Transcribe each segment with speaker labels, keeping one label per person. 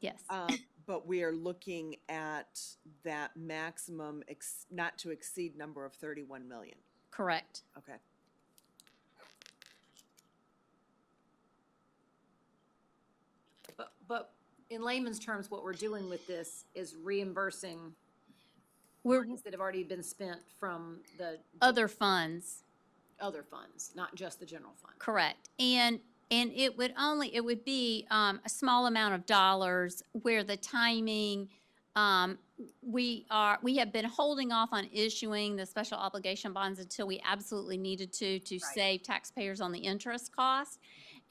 Speaker 1: Yes.
Speaker 2: Um, But we are looking at that maximum, ex- not to exceed number of 31 million.
Speaker 1: Correct.
Speaker 2: Okay.
Speaker 3: But, but in layman's terms, what we're doing with this is reimbursing
Speaker 1: We're
Speaker 3: funds that have already been spent from the
Speaker 1: other funds.
Speaker 3: other funds, not just the general fund.
Speaker 1: Correct. And, and it would only, it would be um, a small amount of dollars where the timing, um, we are, we have been holding off on issuing the special obligation bonds until we absolutely needed to, to
Speaker 3: Right.
Speaker 1: save taxpayers on the interest cost.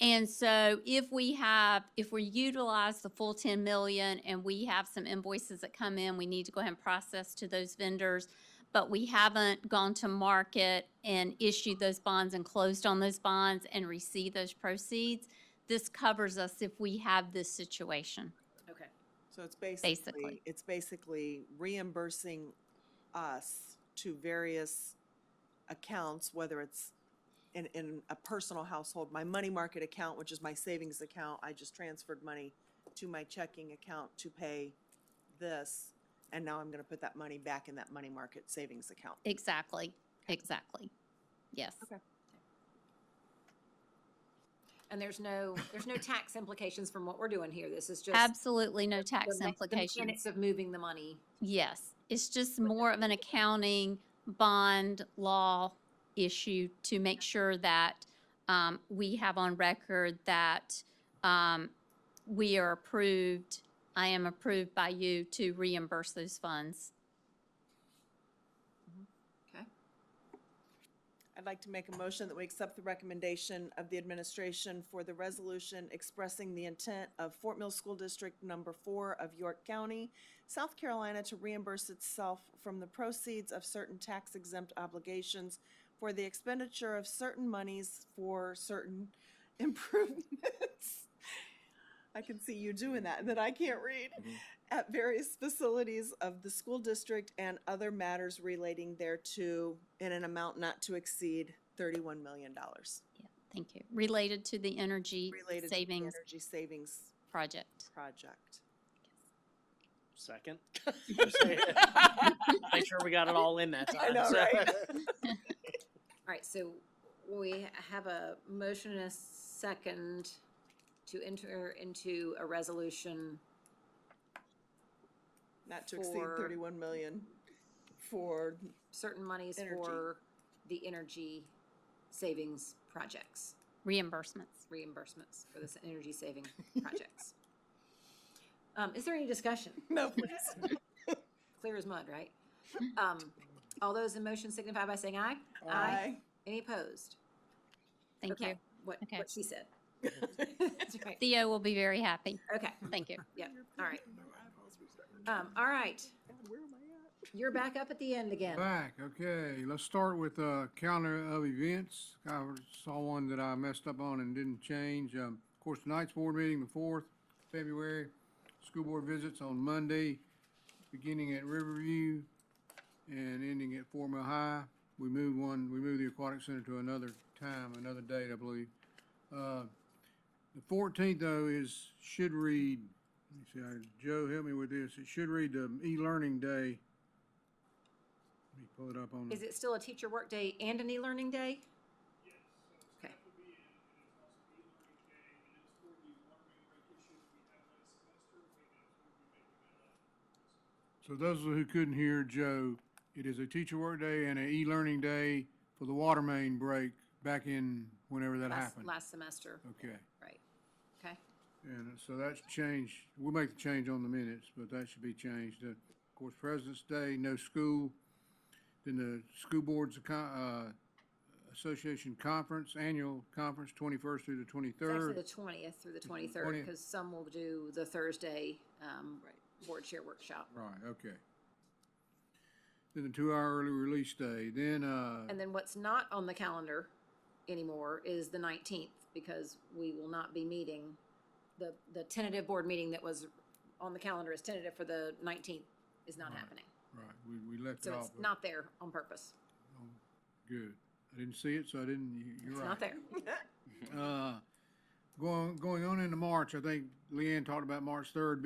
Speaker 1: And so if we have, if we utilize the full 10 million and we have some invoices that come in, we need to go ahead and process to those vendors but we haven't gone to market and issued those bonds and closed on those bonds and received those proceeds. This covers us if we have this situation.
Speaker 3: Okay.
Speaker 2: So it's
Speaker 1: Basically.
Speaker 2: basically, it's basically reimbursing us to various accounts, whether it's in, in a personal household, my money market account, which is my savings account, I just transferred money to my checking account to pay this, and now I'm gonna put that money back in that money market savings account.
Speaker 1: Exactly, exactly. Yes.
Speaker 2: Okay.
Speaker 3: And there's no, there's no tax implications from what we're doing here. This is just.
Speaker 1: Absolutely no tax
Speaker 3: the me- the
Speaker 1: implications.
Speaker 3: mechanics Of moving the money.
Speaker 1: Yes, it's just more of an accounting bond law issue to make sure that um, we have on record that um, we are approved, I am approved by you to reimburse those funds.
Speaker 3: Okay.
Speaker 2: I'd like to make a motion that we accept the recommendation of the administration for the resolution expressing the intent of Fort Mill School District Number Four of York County, South Carolina to reimburse itself from the proceeds of certain tax exempt obligations for the expenditure of certain monies for certain improvements. I can see you doing that, that I can't read at various facilities of the school district and other matters relating thereto in an amount not to exceed thirty-one million dollars.
Speaker 1: Thank you. Related to the energy
Speaker 2: Related to the
Speaker 1: savings
Speaker 2: energy savings
Speaker 1: project.
Speaker 2: project.
Speaker 4: Second. Make sure we got it all in that time.
Speaker 2: I know,
Speaker 4: so-
Speaker 2: right?
Speaker 3: All right, so we have a motion and a second to enter into a resolution
Speaker 2: Not to exceed
Speaker 3: For-
Speaker 2: thirty-one million for,
Speaker 3: certain monies
Speaker 2: Energy.
Speaker 3: for the energy savings projects,
Speaker 1: Reimbursements.
Speaker 3: reimbursements for this energy saving projects. Um, is there any discussion?
Speaker 2: no, please.
Speaker 3: Clear as mud, right? Um, all those in motion signify by saying aye.
Speaker 2: Aye.
Speaker 3: Any opposed?
Speaker 1: Thank
Speaker 3: Okay,
Speaker 1: you.
Speaker 3: What,
Speaker 1: Okay.
Speaker 3: what she said. That's right.
Speaker 1: Theo will be very happy.
Speaker 3: Okay,
Speaker 1: Thank you.
Speaker 3: yep, all right. Um, all right,
Speaker 2: Where am I
Speaker 3: you're back up at the end again.
Speaker 5: Back, okay, let's start with uh calendar of events. I saw one that I messed up on and didn't change. Um, of course, tonight's board meeting, the fourth, February. School board visits on Monday, beginning at Riverview and ending at Fort Mill High. We move one, we move the aquatic center to another time, another date, I believe. Uh, the fourteenth though is, should read, let me see, uh, Joe, help me with this. It should read the e-learning day. Let me pull it up on. the-
Speaker 3: Is it still a teacher work day and an e-learning day? Okay.
Speaker 5: So those who couldn't hear Joe, it is a teacher work day and an e-learning day for the water main break back in whenever that
Speaker 3: Last,
Speaker 5: happened.
Speaker 3: last semester,
Speaker 5: Okay,
Speaker 3: right. Okay,
Speaker 5: and so that's changed. We'll make the change on the minutes, but that should be changed. Uh, Of course, President's Day, no school. Then the School Boards Acco- uh, Association Conference, Annual Conference, twenty-first through the
Speaker 3: it's actually
Speaker 5: twenty-third.
Speaker 3: the twentieth through the twenty-third,
Speaker 5: 20th.
Speaker 3: because some will do the Thursday, um,
Speaker 2: Right.
Speaker 3: board chair workshop.
Speaker 5: Right, okay. Then the two-hour early release day, then, uh.
Speaker 3: And then what's not on the calendar anymore is the nineteenth, because we will not be meeting. The, the tentative board meeting that was on the calendar is tentative for the nineteenth is not
Speaker 5: Right.
Speaker 3: happening.
Speaker 5: Right, we, we left it
Speaker 3: So
Speaker 5: off.
Speaker 3: it's
Speaker 5: but-
Speaker 3: not there on purpose.
Speaker 5: Oh, Good. I didn't see it, so I didn't, you- you're
Speaker 3: It's
Speaker 5: right.
Speaker 3: not there.
Speaker 5: Uh, going, going on into March, I think Leanne talked about March third